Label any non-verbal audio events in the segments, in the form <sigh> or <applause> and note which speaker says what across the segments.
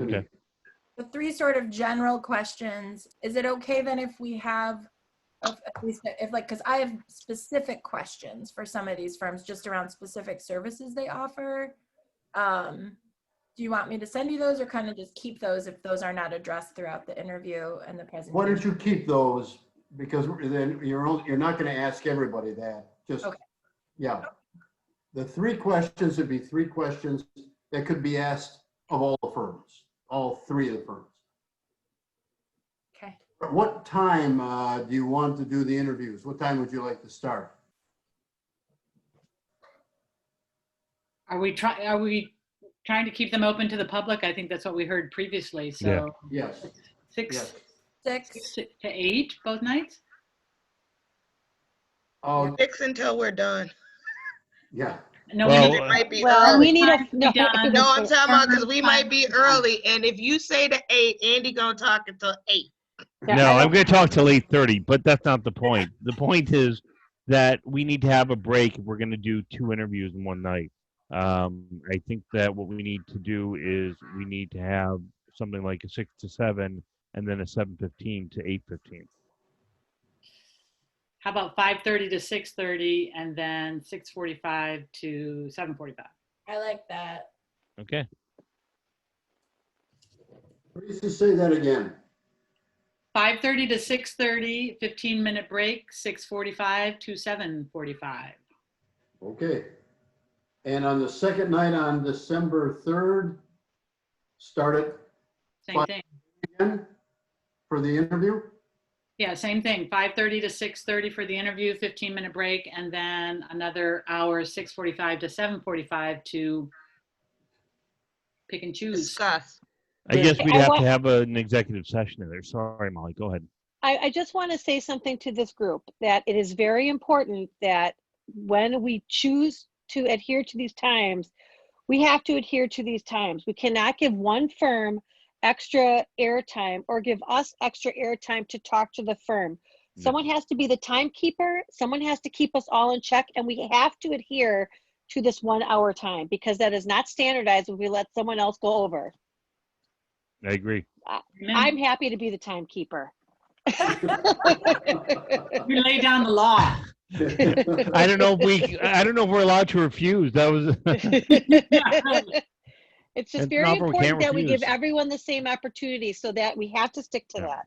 Speaker 1: Okay.
Speaker 2: The three sort of general questions. Is it okay then if we have, if, at least if like, because I have specific questions for some of these firms just around specific services they offer. Um, do you want me to send you those or kind of just keep those if those are not addressed throughout the interview and the presentation?
Speaker 3: Why don't you keep those? Because then you're, only- you're not going to ask everybody that, just,
Speaker 2: Okay.
Speaker 3: yeah. The three questions would be three questions that could be asked of all the firms, all three of the firms.
Speaker 2: Okay.
Speaker 3: At What time uh, do you want to do the interviews? What time would you like to start?
Speaker 4: Are we trying, are we trying to keep them open to the public? I think that's what we heard previously, so.
Speaker 3: Yes,
Speaker 4: Six
Speaker 3: yes.
Speaker 2: Six,
Speaker 4: six to eight, both nights?
Speaker 3: Oh,
Speaker 5: Six until we're done.
Speaker 3: yeah.
Speaker 4: No,
Speaker 5: Because
Speaker 4: we-
Speaker 5: It
Speaker 1: Well,
Speaker 5: might be
Speaker 6: Well, we
Speaker 5: early.
Speaker 6: need a.
Speaker 4: Time to be
Speaker 6: <laughs> no,
Speaker 4: done.
Speaker 6: because
Speaker 5: No, I'm
Speaker 6: it's-
Speaker 5: talking about because we might be early, and if you say the eight, Andy gonna talk until eight.
Speaker 6: yeah,
Speaker 1: No,
Speaker 6: I
Speaker 1: I'm going to talk till eight thirty, but that's not the point. The point is that we need to have a break. if We're going to do two interviews in one night. Um, I think that what we need to do is we need to have something like a six to seven, and then a seven fifteen to eight fifteen.
Speaker 4: how about five thirty to six thirty and then six forty-five to seven forty-five?
Speaker 2: I like that.
Speaker 1: Okay.
Speaker 3: Please just say that again.
Speaker 4: Five thirty to 6:30, 15 minute break, six forty-five to seven forty-five.
Speaker 3: Okay. And on the second night on December 3rd, start it
Speaker 4: Same
Speaker 3: Fine.
Speaker 4: thing.
Speaker 3: again for the interview?
Speaker 4: Yeah, same thing. Five thirty to six thirty for the interview, fifteen minute break, and then another hour, six forty-five to seven forty-five to pick and choose.
Speaker 5: Discuss.
Speaker 1: I guess
Speaker 6: Okay,
Speaker 1: we'd
Speaker 6: I
Speaker 1: have
Speaker 6: want-
Speaker 1: to have an executive session in there. Sorry, Molly. Go ahead.
Speaker 6: I, I just want to say something to this group, that it is very important that when we choose to adhere to these times, we have to adhere to these times. We cannot give one firm extra airtime or give us extra airtime to talk to the firm.
Speaker 5: Mm.
Speaker 6: Someone has to be the timekeeper, someone has to keep us all in check, and we have to adhere to this one hour time because that is not standardized if we let someone else go over.
Speaker 1: I
Speaker 6: <laughs>
Speaker 1: agree.
Speaker 6: I'm happy to be the timekeeper.
Speaker 3: <laughs>
Speaker 4: You lay down the law.
Speaker 1: I don't know if we. I don't know if we're allowed to refuse. That was.
Speaker 6: <laughs>
Speaker 1: <laughs>
Speaker 6: it's
Speaker 1: It's
Speaker 6: just very
Speaker 1: proper, we can't
Speaker 6: important that we give
Speaker 1: refuse.
Speaker 6: everyone the same opportunity so that we have to stick to
Speaker 1: Yeah.
Speaker 6: that.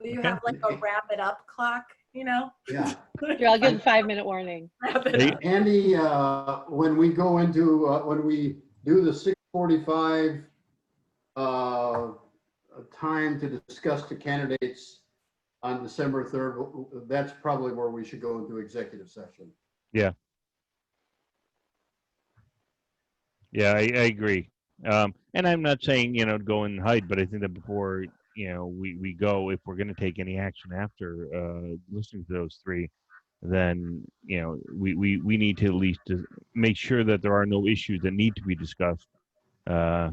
Speaker 2: Will you
Speaker 1: Okay.
Speaker 2: have like a wrap it up clock, you know? <laughs>
Speaker 3: Yeah.
Speaker 6: Here, I'll give a five minute warning.
Speaker 2: Wrap it
Speaker 1: Hey,
Speaker 2: up.
Speaker 3: Andy, uh, when we go into, uh, when we do the 645 uh, time to discuss the candidates on December 3rd, that's probably where we should go into executive session.
Speaker 1: Yeah, I, I agree. Um, and I'm not saying you know go and hide, but I think that before you know we we go, if we're going to take any action after uh, listening to those three, then you know we we we need to at least to make sure that there are no issues that need to be discussed. Uh,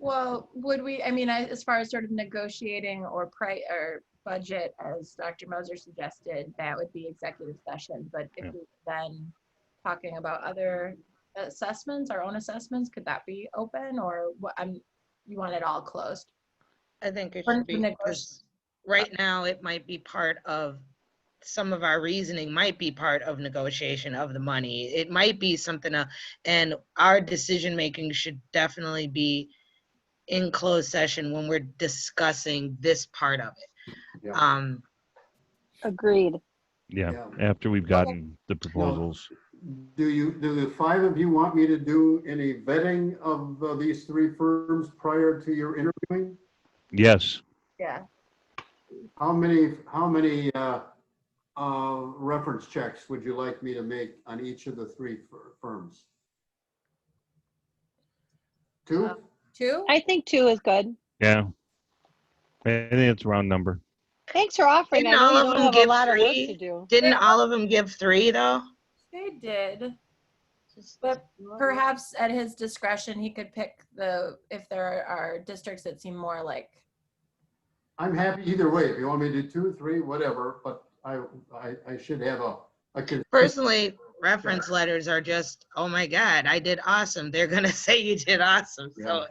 Speaker 2: Well, would we, I mean, I- as far as sort of negotiating or pri, or budget, as Dr. Moser suggested, that would be executive session, but
Speaker 1: Yeah.
Speaker 2: if we then talking about other assessments, our own assessments, could that be open or what, I'm, you want it all closed?
Speaker 5: I think it
Speaker 2: Or
Speaker 5: should be,
Speaker 2: negoti-
Speaker 5: 'cause right now, it might be part of, some of our reasoning might be part of negotiation of the money. It might be something, else, and our decision-making should definitely be in closed session when we're discussing this part of it.
Speaker 3: Yeah.
Speaker 5: Um,
Speaker 6: Agreed.
Speaker 1: yeah,
Speaker 3: Yeah.
Speaker 1: after we've gotten the proposals.
Speaker 3: Do you, do the five of you want me to do any vetting of uh, these three firms prior to your interviewing?
Speaker 1: Yes,
Speaker 2: Yeah.
Speaker 3: How many, how many uh, uh, reference checks would you like me to make on each of the three fir- firms? Two?
Speaker 2: Two?
Speaker 6: I think two is good.
Speaker 1: yeah. I think it's a round number.
Speaker 6: Thanks for offering. I
Speaker 5: Didn't all of
Speaker 6: know you don't
Speaker 5: them
Speaker 6: have a
Speaker 5: give
Speaker 6: lot of work
Speaker 5: three?
Speaker 6: to do.
Speaker 5: didn't all of them give three, though?
Speaker 2: They did. But Perhaps at his discretion, he could pick the, if there are districts that seem more like,
Speaker 3: I'm happy either way. If you want me to do two, three, whatever, but I, I, I should have a, a con-
Speaker 5: Personally, <laughs> reference letters are just, oh my God, I did awesome. They're gonna say you did awesome. So